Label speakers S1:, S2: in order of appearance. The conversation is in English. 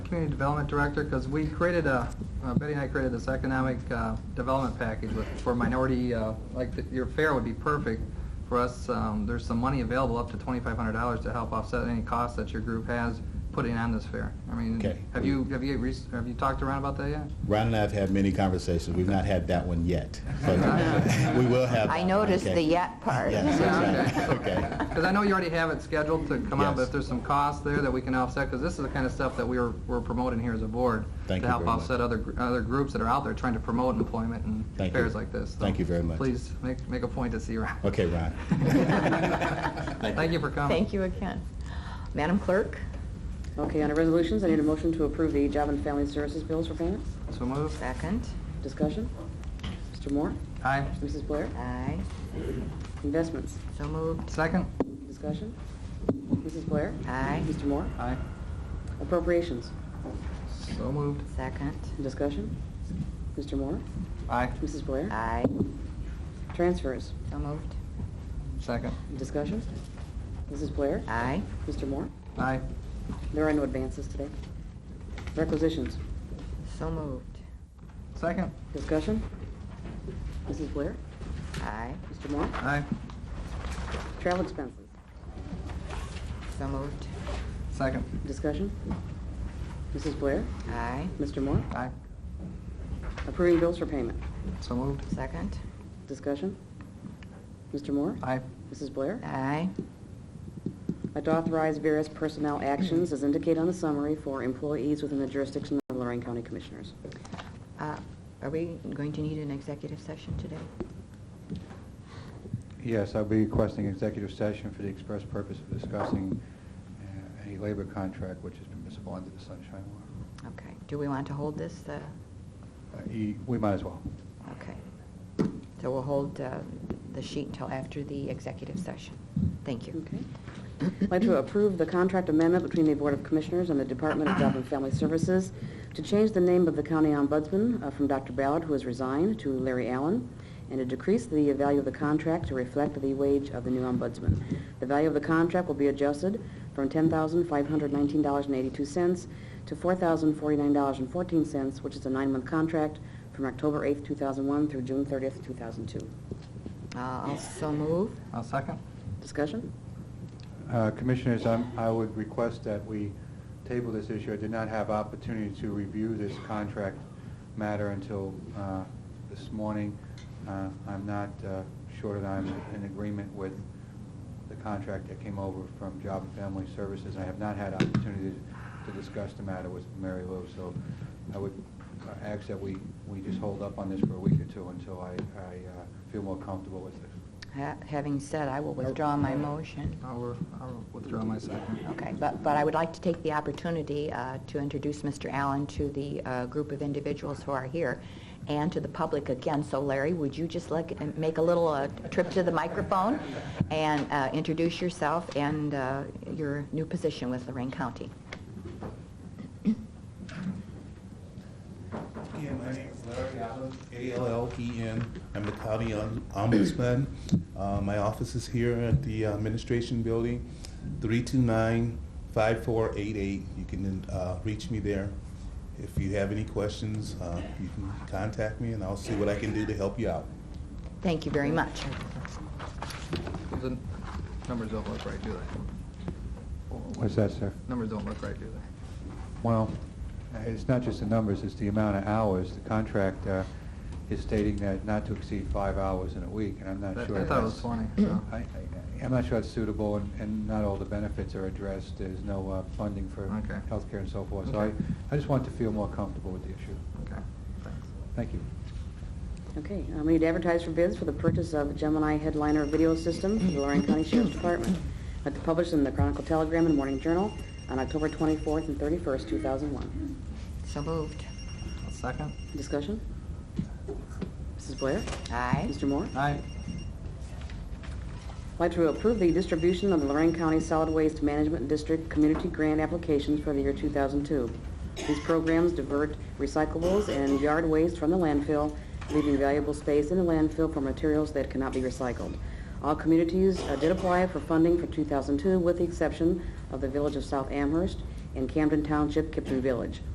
S1: Community Development Director, because we created a, uh, Betty and I created this economic uh, development package with- for minority, uh, like, th- your fair would be perfect for us. Um, There's some money available, up to $2,500, to help offset any costs that your group has putting on this fair. I mean,
S2: Okay.
S1: have you, have you, re- have you talked around about that yet?
S2: Ron and I have had many conversations. We've not had that one yet. but We will have. that
S3: I
S2: one,
S3: noticed
S2: okay?
S3: the yet part.
S2: Yes, that's right. Okay.
S1: Because I know you already have it scheduled to come out, but
S2: Yes.
S1: if there's some costs there that we can offset, because this is the kind of stuff that we're, we're promoting here as a board.
S2: Thank
S1: To
S2: you
S1: help
S2: very much.
S1: offset other, gr- other groups that are out there trying to promote employment and
S2: Thank you.
S1: fairs like this. So
S2: Thank you very much.
S1: Please, make, make a point to see Ron.
S2: Okay, Ron.
S1: Thank you for coming.
S3: Thank you again. Madam Clerk?
S4: Okay, under resolutions, I need a motion to approve the Job and Family Services bills for payment.
S1: So moved.
S3: Second.
S4: Discussion? Mr. Moore?
S1: Aye.
S4: Mrs. Blair?
S3: Aye.
S4: Investments?
S3: So moved.
S1: Second?
S4: Discussion? Mrs. Blair?
S3: Aye.
S4: Mr. Moore?
S1: Aye.
S4: Appropriations?
S1: So moved.
S3: Second.
S4: Discussion? Mr. Moore?
S1: Aye.
S4: Mrs. Blair?
S3: Aye.
S4: Transfers?
S3: So moved.
S1: Second?
S4: Discussion? Mrs. Blair?
S3: Aye.
S4: Mr. Moore?
S1: Aye.
S4: There are no advances today. Requisitions?
S3: So moved.
S1: Second?
S4: Discussion? Mrs. Blair?
S3: Aye.
S4: Mr. Moore?
S1: Aye.
S4: Travel expenses?
S3: So moved.
S1: Second?
S4: Discussion? Mrs. Blair?
S3: Aye.
S4: Mr. Moore?
S1: Aye.
S4: Approving bills for payment.
S1: So moved.
S3: Second.
S4: Discussion? Mr. Moore?
S1: Aye.
S4: Mrs. Blair?
S3: Aye.
S4: I'd authorize various personnel actions as indicated on the summary for employees within the jurisdiction of Lorraine County Commissioners.
S3: Uh, Are we going to need an executive session today?
S5: Yes, I'll be requesting executive session for the express purpose of discussing uh, a labor contract which is permissible under the Sunshine Law.
S3: Okay. Do we want to hold this? uh,
S5: Uh, e- We might as well.
S3: Okay. So we'll hold uh, the sheet until after the executive session. Thank you.
S4: Okay. I'd like to approve the contract amendment between the Board of Commissioners and the Department of Job and Family Services to change the name of the county ombudsman uh, from Dr. Ballard, who has resigned, to Larry Allen, and to decrease the value of the contract to reflect the wage of the new ombudsman. The value of the contract will be adjusted from $10,519.82 to $4,049.14, which is a nine-month contract from October 8th, 2001 through June 30th, 2002.
S3: Uh, I'll so move.
S1: I'll second.
S4: Discussion?
S5: Uh, Commissioners, I'm- I would request that we table this issue. I did not have opportunity to review this contract matter until uh, this morning. Uh, I'm not uh, sure that I'm in agreement with the contract that came over from Job and Family Services. I have not had opportunity to discuss the matter with Mary Lou, so I would uh, ask that we we just hold up on this for a week or two until I I, uh, feel more comfortable with this.
S3: Ha- Having said, I will withdraw my motion.
S1: I'll re- I'll withdraw my second.
S3: Okay, but, but I would like to take the opportunity uh, to introduce Mr. Allen to the uh, group of individuals who are here and to the public again. So Larry, would you just like, uh, make a little uh, trip to the microphone and uh, introduce yourself and uh, your new position with Lorraine County?
S6: Yeah, my name is Larry Allen, A-L-L-E-N. E I'm the county om- ombudsman. Uh, My office is here at the administration building, 329-5488. You can uh, reach me there. If you have any questions, uh, you can contact me, and I'll see what I can do to help you out.
S3: Thank you very much.
S1: The numbers don't look right, do they?
S5: What's that, sir?
S1: Numbers don't look right, do they?
S5: Well, uh, it's not just the numbers, it's the amount of hours. The contract uh, is stating that not to exceed five hours in a week, and I'm
S1: I-
S5: not
S1: I
S5: sure.
S1: thought it
S5: that's-
S1: was 20, so.
S5: I- I- I'm not sure it's suitable, and- and not all the benefits are addressed. There's no uh, funding for
S1: Okay.
S5: healthcare and so forth. So I
S1: Okay.
S5: I just want to feel more comfortable with the issue.
S1: Okay, thanks.
S5: Thank you.
S4: Okay, um, we need to advertise for bids for the purchase of Gemini Headliner Video System for the Lorraine County Sheriff's Department. That's published in the Chronicle Telegram and Morning Journal on October 24th and 31st, 2001.
S3: So moved.
S1: I'll second.
S4: Discussion? Mrs. Blair?
S3: Aye.
S4: Mr. Moore?
S1: Aye.
S4: I'd like to approve the distribution of the Lorraine County Solid Waste Management District Community Grant applications for the year 2002. These programs divert recyclables and yard waste from the landfill, leaving valuable space in the landfill for materials that cannot be recycled. All communities uh, did apply for funding for 2002, with the exception of the Village of South Amherst in Camden Township, Kipton Village.